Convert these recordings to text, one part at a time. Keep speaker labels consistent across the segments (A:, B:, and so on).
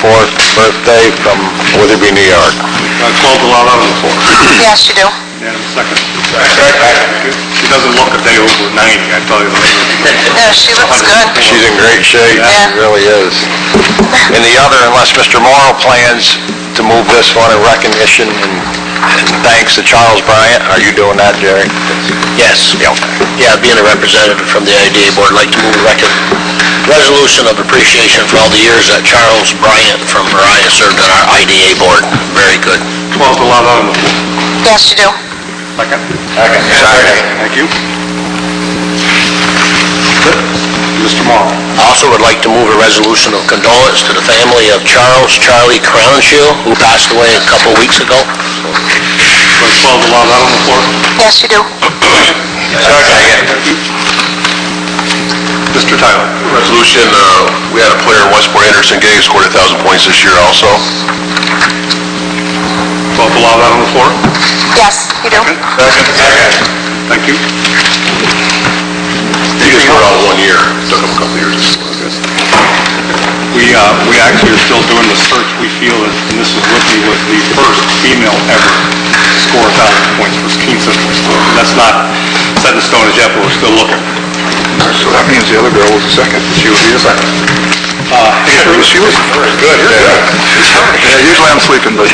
A: fourth birthday from Witherby, New York.
B: I called the lot out on the fourth,
C: Yes, you do.
B: and the second. She doesn't look a day over ninety, I tell you.
C: No, she looks good.
A: She's in great shape, she
C: Yeah.
A: really is. And the other, unless Mr. Morrow plans to move this one in recognition and and thanks to Charles Bryant, are you doing that, Jerry?
D: Yes.
A: Yeah, okay.
D: Yeah, being a representative from the IDA Board, I'd like to move a record, resolution of appreciation for all the years that Charles Bryant from Mariah served on our IDA Board. Very good.
B: Called the lot out on the fourth.
C: Yes, you do.
B: Second.
A: Okay, Saturday.
B: Thank you. Mr. Morrow.
D: Also would like to move a resolution of condolence to the family of Charles Charlie Crownshield, who passed away a couple weeks ago.
B: I called the lot out on the fourth.
C: Yes, you do.
A: Second.
B: Mr. Tyler.
A: Resolution, uh, we had a player in Westport, Anderson Gay, scored a thousand points this year also.
B: Called the lot out on the fourth.
C: Yes, you do.
B: Thank you.
A: He just scored all one year, took him a couple years.
B: We, uh, we actually are still doing the search. We feel that Mrs. Whitney was the first female ever to score a thousand points for Teen Sisters. That's not set in stone as yet, but we're still looking.
A: So that means the other girl was the second, she was the second.
B: Uh, any further-
A: She was good, yeah. Yeah, usually I'm sleeping, but...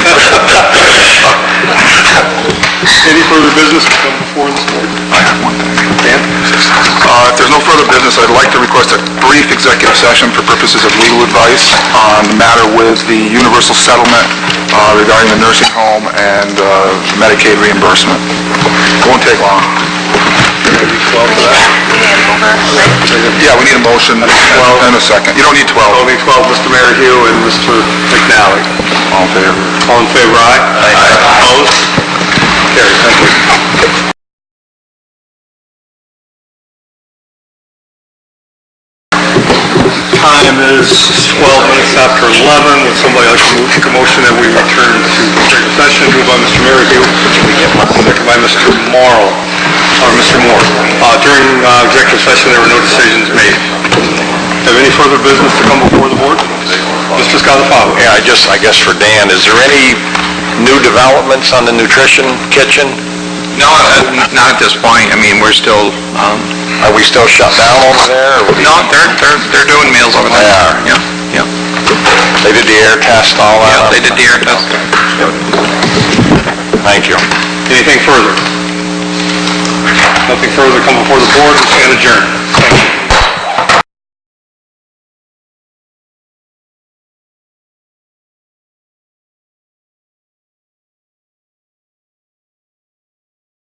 B: Any further business to come before this board?
A: I have one thing. Dan? If there's no further business, I'd like to request a brief executive session for purposes of legal advice on the matter with the universal settlement uh, regarding the nursing home and uh, Medicaid reimbursement. Won't take long. Yeah, we need a motion and a second. You don't need 12.
B: Only 12, Mr. Merryle and Mr. McNally.
A: All in favor?
B: All in favor, aye? Aye. Opposed? Carried, thank you. Time is 12 minutes after 11. Would somebody like to move a motion that we return to executive session? Moved by Mr. Merryle, seconded by Mr. Morrow, or Mr. Moore. Uh, During uh, executive session, there were no decisions made. Have any further business to come before the board? Mr. Scottafawo?
A: Yeah, I just, I guess for Dan, is there any new developments on the nutrition kitchen?
E: No, uh, not at this point. I mean, we're still, um,
A: Are we still shut down over there? or we-
E: no, they're, they're, they're doing meals over there.
A: They are.
E: Yeah, yeah.
A: They did the air test, all
E: Yeah,
A: that?
E: they did the air test.
A: Thank you.
B: Anything further? Nothing further to come before the board, we stand adjourned.